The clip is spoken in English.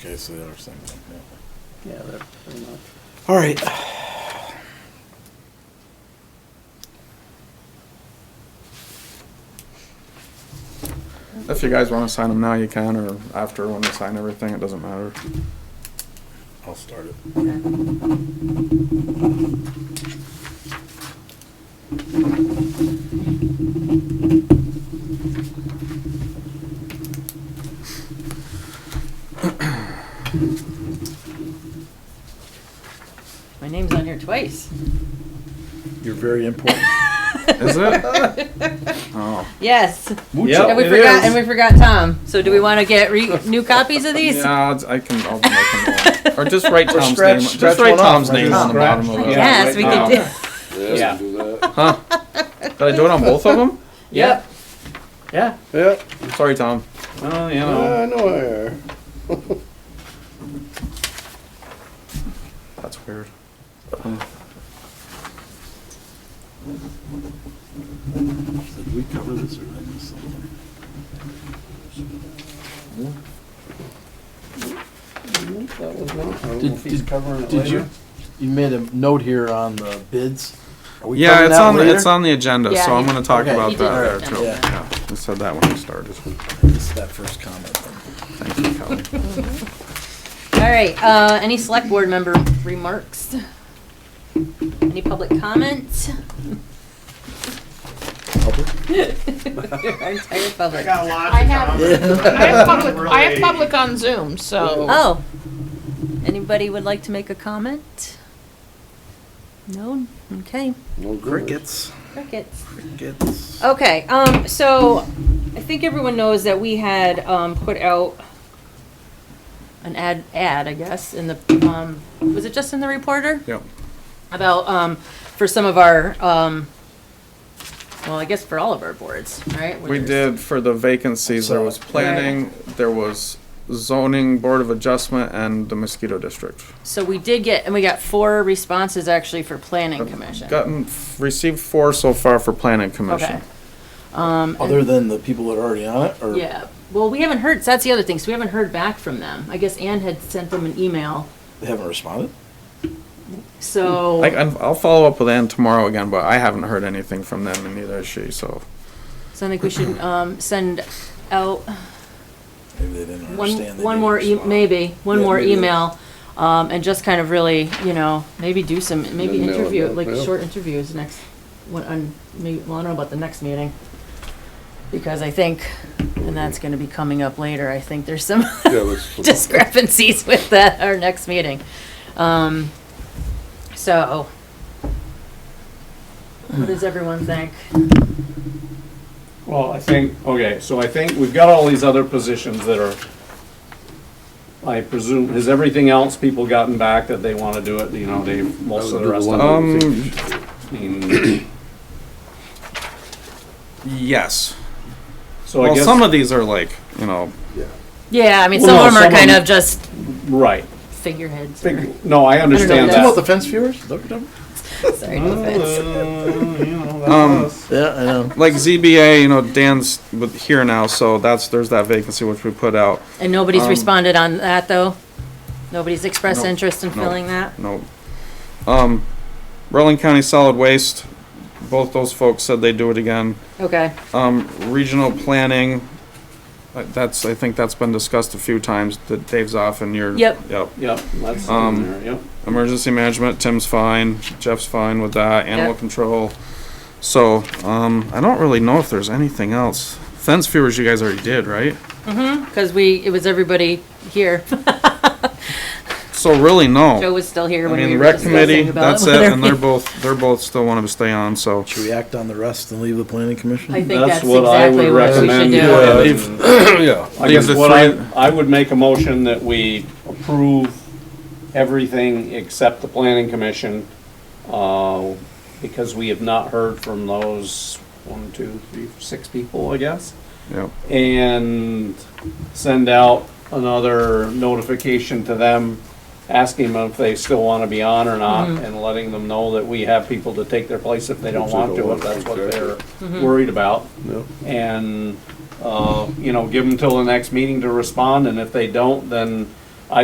Okay, so they are same thing. yeah. Yeah, they're pretty much. All right. If you guys want to sign them now, you can, or after when we sign everything, it doesn't matter. I'll start it. My name's on here twice. You're very important. Is it? Oh. Yes. Mucho. and we forgot and we forgot Tom. So do we want to get re- new copies of these? Yeah, I'll- I can, I'll make them all. Or just write Or Tom's scratch- name, scratch just write one off, Tom's right? name on the bottom of it. Yeah. yes, we right could do. now. Yeah, we can do that. Huh? Did I do it on both of them? Yep. Yeah, Yep. Sorry, Tom. Oh, you know, Uh, I know I are. that's weird. Did we cover this or did I miss something? that was one. I don't know Did- if he's did- covering it Did you, later. you made a note here on the bids? Are we Yeah, covering it's that on, later? it's on the agenda, Yeah, so I'm he- gonna talk okay. about He did that there write too. it down. Yeah, I said that when we started. This is that first comment. Thank you, Kelly. All right. Uh, any select board member remarks? Any public comments? Our entire public. I have, I have public, I have public on Zoom, so. Oh. Anybody would like to make a comment? No? Okay. No good. Crickets, Crickets. crickets. Okay, um, so I think everyone knows that we had, um, put out an ad, ad, I guess, in the, um, was it just in the reporter? Yep. About, um, for some of our, um, well, I guess for all of our boards, right? We did for the vacancies, there was planning, there was zoning, board of adjustment, and the mosquito district. So we did get, and we got four responses actually for planning commission. Gotten, received four so far for planning Okay. commission. Other than the people that are already on it, or? Yeah, well, we haven't heard, so that's the other thing, so we haven't heard back from them. I guess Ann had sent them an email, They haven't responded? so. Like, and I'll follow up with Ann tomorrow again, but I haven't heard anything from them and neither has she, so. So I think we should um, send out Maybe they didn't one, understand. they one didn't more, e- respond. maybe, one Yeah, more maybe. email, um, and just kind of really, you know, maybe do some, maybe Then they'll interview, know, like, yeah. short interviews next, what, on, maybe, well, I don't know about the next meeting. Because I think, and that's gonna be coming up later, I think there's some Yeah, let's. discrepancies with that, our next meeting. Um, so, what does everyone think? Well, I think, okay, so I think we've got all these other positions that are, I presume, has everything else people gotten back that they want to do it, you know, they, most of the rest of them? Um, I mean, yes. So I Well, some guess, of these are like, you know, Yeah, I mean, Well, some no, of them are some of kind them- of just right. figureheads. or- Think- No, I understand what What about that. the fence viewers? Look at them. Sorry, no offense. Uh, you know, that's Um, us. Yeah, I know. like ZBA, you know, Dan's with, here now, so that's, there's that vacancy which we put out. And nobody's Um, responded on that, though? Nobody's expressed No, interest in no. filling that? No. Um, Rutland County Solid Waste, both those folks said they'd do it again. Okay, Um, regional planning, uh, that's, I think that's been discussed a few times, that Dave's off and you're. Yep. Yep. Yep, that's Um, in there, yep. Emergency management, Tim's fine, Jeff's fine with that, animal Yep. control. So, um, I don't really know if there's anything else. Fence viewers, you guys already did, right? because we, it was everybody here. So really, Joe no. was still here I when we mean, were rec committee, discussing about that's it, whether and we- they're both, they're both still wanting to stay on, so. Should we act on the rest and leave the planning commission? I think That's that's what I would exactly what recommend, we should do. yeah. And if- Yeah. I These guess are what I, three- I would make a motion that we approve everything except the planning commission, uh, because we have not heard from those one, two, three, six people, I guess. Yep. And send out another notification to them, asking them if they still want to be on or not, and letting them know that we have people to take their place if they don't If they want don't to, if want to, that's what exactly. they're worried about No. and, uh, you know, give them till the next meeting to respond, and if they don't, then